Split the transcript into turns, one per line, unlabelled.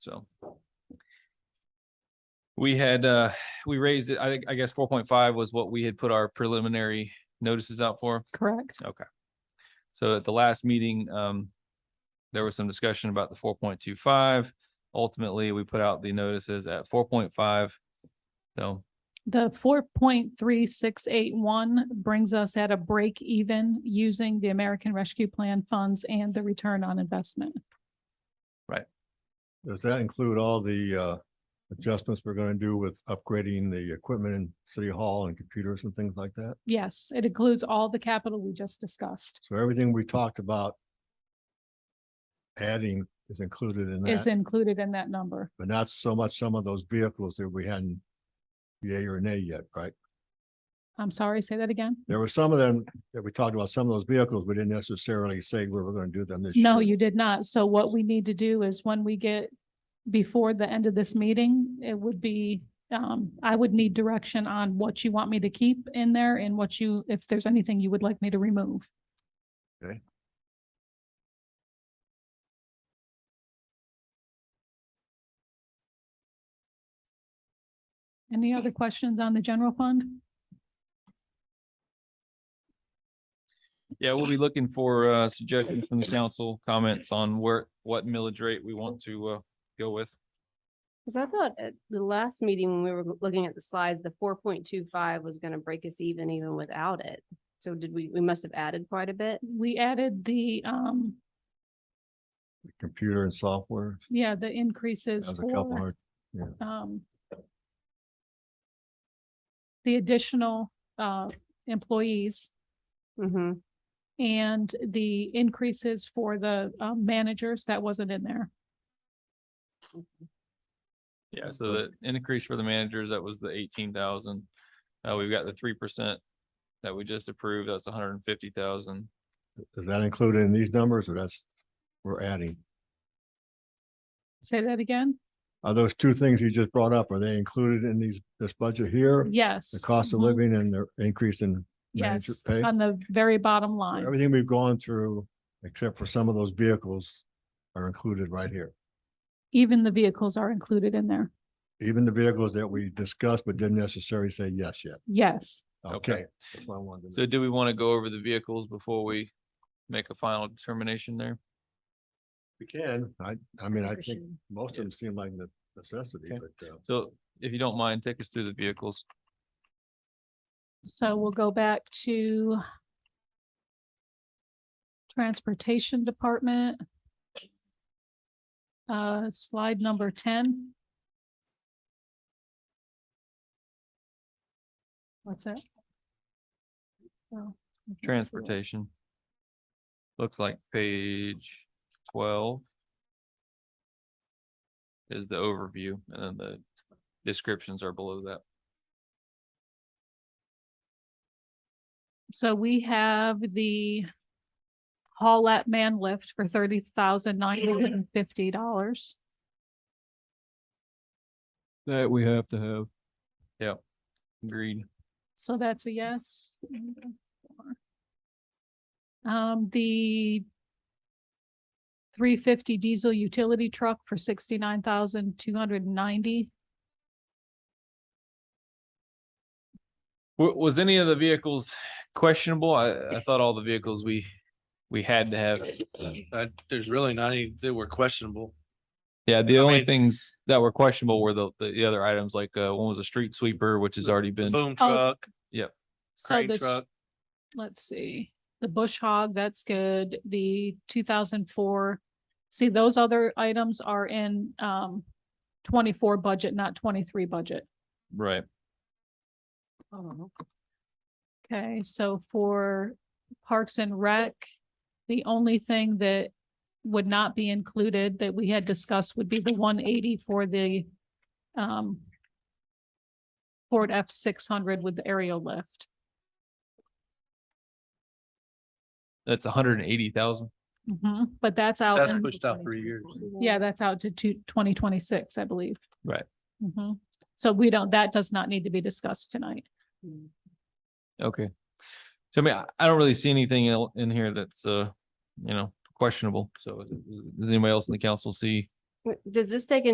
So. We had, uh, we raised it, I think, I guess four point five was what we had put our preliminary notices out for.
Correct.
So at the last meeting, um, there was some discussion about the four point two five. Ultimately, we put out the notices at four point five. So,
The four point three six eight one brings us at a break even using the American Rescue Plan funds and the return on investment.
Does that include all the uh adjustments we're gonna do with upgrading the equipment in City Hall and computers and things like that?
Yes, it includes all the capital we just discussed
So everything we talked about adding is included in
is
that,
included in that number.
but not so much some of those vehicles that we hadn't yay or nay yet, right?
I'm sorry, say that again?
There were some of them that we talked about, some of those vehicles, we didn't necessarily say we were gonna do them this year.
No, you did not. So what we need to do is when we get before the end of this meeting, it would be, um, I would need direction on what you want me to keep in there and what you, if there's anything you would like me to remove. Any other questions on the general fund?
yeah, we'll be looking for, uh, suggestions from the council, comments on where, what millage rate we want to, uh, go with.
Cause I thought at the last meeting, when we were go- looking at the slides, the four point two five was gonna break us even, even without it. So did we, we must have added quite a bit.
We added the, um,
Computer and software,
yeah, the increases
that was a couple
for
hundred,
um, the additional, uh, employees
Mm-hmm.
and the increases for the, uh, managers that wasn't in there.
Yeah, so the increase for the managers, that was the eighteen thousand. Uh, we've got the three percent that we just approved, that's hundred and fifty thousand.
is that included in these numbers or that's, we're adding?
Say that again?
Are those two things you just brought up, are they included in these, this budget here?
Yes.
The cost of
Mhm.
living and the increase in manager
Yes,
pay?
on the very bottom line.
Everything we've gone through, except for some of those vehicles are included right here.
Even the vehicles are included in there.
Even the vehicles that we discussed but didn't necessarily say yes yet.
Yes.
Okay.
Okay. that's what I wanted to
So
know.
do we want to go over the vehicles before we make a final determination there?
We can, I, I mean, I think most of them seem like the necessity,
Okay.
but uh,
So if you don't mind, take us through the vehicles.
So we'll go back to Transportation Department. Uh, slide number ten. What's that? Oh, I can't see it.
Transportation. Looks like page twelve. Is the overview and then the descriptions are below that.
So we have the haul at man lift for thirty thousand nine hundred and fifty dollars.
That we have to have. Yeah, agreed.
So that's a yes. Um, the three fifty diesel utility truck for sixty-nine thousand two hundred and ninety.
Wa- was any of the vehicles questionable? I, I thought all the vehicles we, we had to have.
I there's really not any that were questionable.
Yeah, the
I
only
mean-
things that were questionable were the, the the other items, like, uh, one was a street sweeper, which has already been,
Boom
Oh,
truck,
So
crane
this,
truck,
let's see, the bush hog, that's good. The two thousand four. See, those other items are in, um, twenty-four budget, not twenty-three budget.
right.
Okay, so for Parks and Rec, the only thing that would not be included that we had discussed would be the one eighty for the um Ford F six hundred with the aerial lift.
That's hundred and eighty thousand.
Mhm, But that's out.
that's
in-
pushed out three years.
Yeah, that's out to two- 2026, I believe.
Right.
Mhm. So we don't, that does not need to be discussed tonight.
Okay. So I mean, I, I don't really see anything el- in here that's, uh, you know, questionable. So does- does anybody else in the council see?
Does this take into